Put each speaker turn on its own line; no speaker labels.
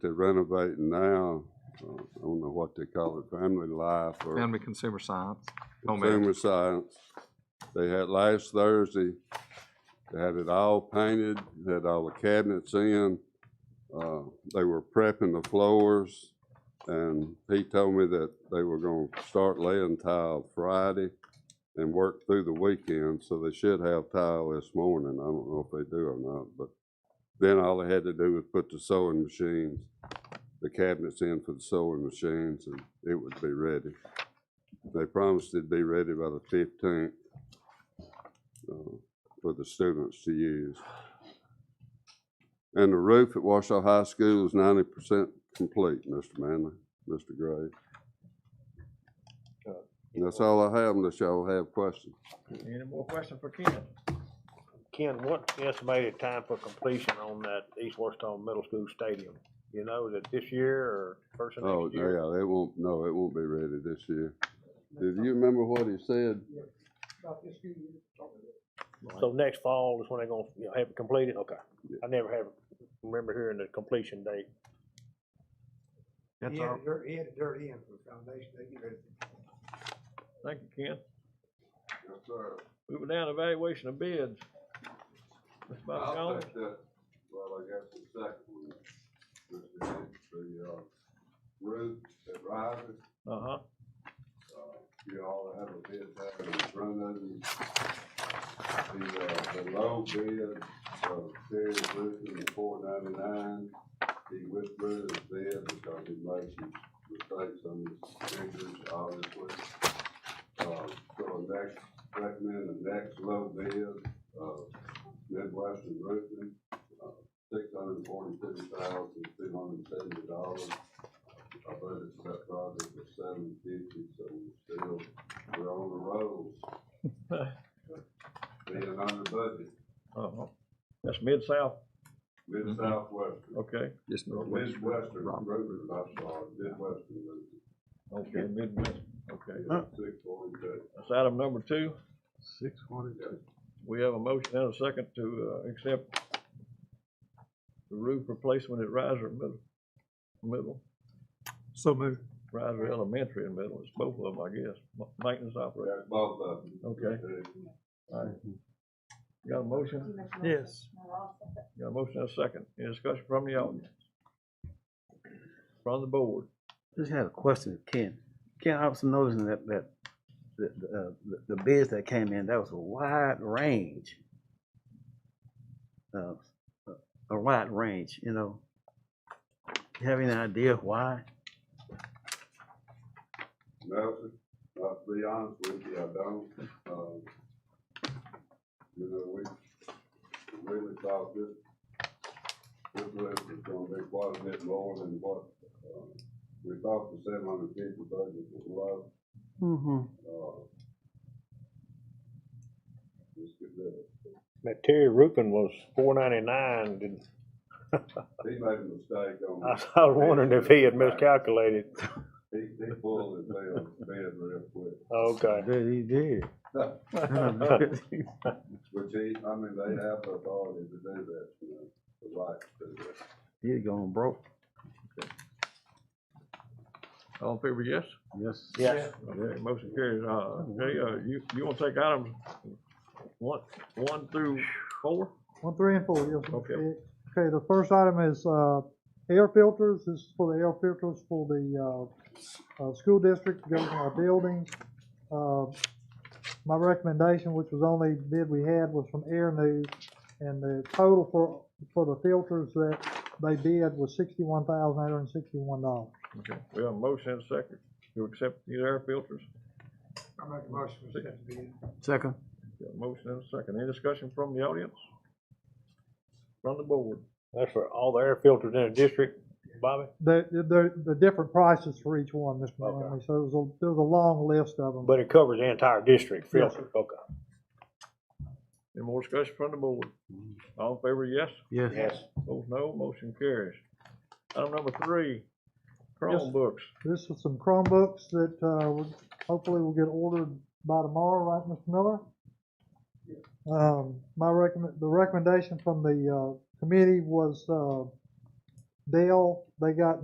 they're renovating now, uh, I don't know what they call it, Family Life or
Family Consumer Science. Home Ec.
Consumer Science. They had last Thursday, they had it all painted, had all the cabinets in. Uh, They were prepping the floors, and he told me that they were gonna start laying tile Friday and work through the weekend, so they should have tile this morning. I don't know if they do or not, but then all they had to do was put the sewing machines, the cabinets in for the sewing machines, and it would be ready. They promised it'd be ready by the fifteenth uh, for the students to use. And the roof at Washoe High School is ninety percent complete, Mr. Manley, Mr. Gray. And that's all I have unless y'all have questions.
Any more questions for Ken?
Ken, what's the estimated time for completion on that East Washington Middle School Stadium? You know, is it this year or first of
Oh,
next year?
yeah, it won't, no, it won't be ready this year. Did you remember what he said?
So next fall is when they're gonna, you know, have it completed? Okay.
Yeah.
I never have, remember hearing the completion date.
That's
He had
all.
it dirt, he had it dirt in for the foundation, they get ready.
Thank you, Ken. Moving down, evaluation of bids. Ms. Bobby
I'll
Jones,
take that, well, I guess the second one, the, the, uh, roof that rises,
uh-huh.
uh, you all have a bid back in front of you. The, uh, the low bid, of Terry Griffin, at four ninety-nine, he withdrew his bid because he made some mistakes on his figures, obviously. Uh, so the next, recommend the next low bid, uh, Midwestern Roofing, uh, six hundred and forty-two thousand, two hundred and seventy dollars. I budgeted for that project at seven fifty, so we're still, we're on the rolls. Being under budget,
Uh-huh. That's Mid-South,
Mid Southwestern,
okay,
Just
or
Northwest.
Midwestern
Rob-
Roofing, I'm sorry, Midwestern Roofing,
okay, Midwest, okay.
six forty-two.
That's item number two.
Six forty-two.
We have a motion and a second to, uh, accept the roof replacement at Riser Middle, Middle,
So moved.
Riser Elementary and Middle, it's both of them, I guess, ma- maintenance operator.
That's both of them.
Okay. All right. Got a motion?
Yes.
Got a motion and a second. Any discussion from the audience? From the board?
Just had a question, of Ken. Ken, I was noticing that, that, the, the, uh, the- the bids that came in, that was a wide range. Uh, a- A wide range, you know. You have any idea why?
Nelson, uh, to be honest with you, I don't, um, you know, we really thought this, this list was gonna be quite a bit lower than what, uh, we thought the seven hundred fifty budget was low,
Mm-hmm.
uh. Just get that,
That Terry Roofing was four ninety-nine. Did,
he made a mistake
I
on,
was I was wondering if he had miscalculated.
he, he pulled his bed, bed real quick,
Okay.
That he did.
which he, I mean, they have the authority to do that, you know, the right to do that.
He gone broke.
All in favor, yes?
Yes.
Yes.
Okay, motion carries. Uh, Jay, uh, you, you wanna take items one, one through four?
One, three, and four, yes. sir. Eh,
Okay.
Okay, the first item is, uh, air filters, this is for the air filters for the, uh, uh, school district, goes in our buildings. Uh, My recommendation, which was the only bid we had, was from Air News, and the total for, for the filters that they bid was sixty-one thousand eight hundred and sixty-one dollars.
Okay, we have a motion and a second to accept these air filters.
I make a motion for that bid.
Second.
Got a motion and a second. Any discussion from the audience? From the board?
That's for all the air filters in the district, Bobby?
The, the, the different prices for each one, Mr.
Okay.
Manley, so it was a, there was a long list of them.
But it covers the entire district
Yes,
filter. Okay.
Any more discussion from the board? All in favor, yes?
Yes.
Yes.
Opposed, no. Motion carries. Item number three, Chromebooks.
This is some Chromebooks that, uh, will- hopefully will get ordered by tomorrow, right, Mr. Miller? Um, my recommend, the recommendation from the, uh, committee was, uh, Dell they got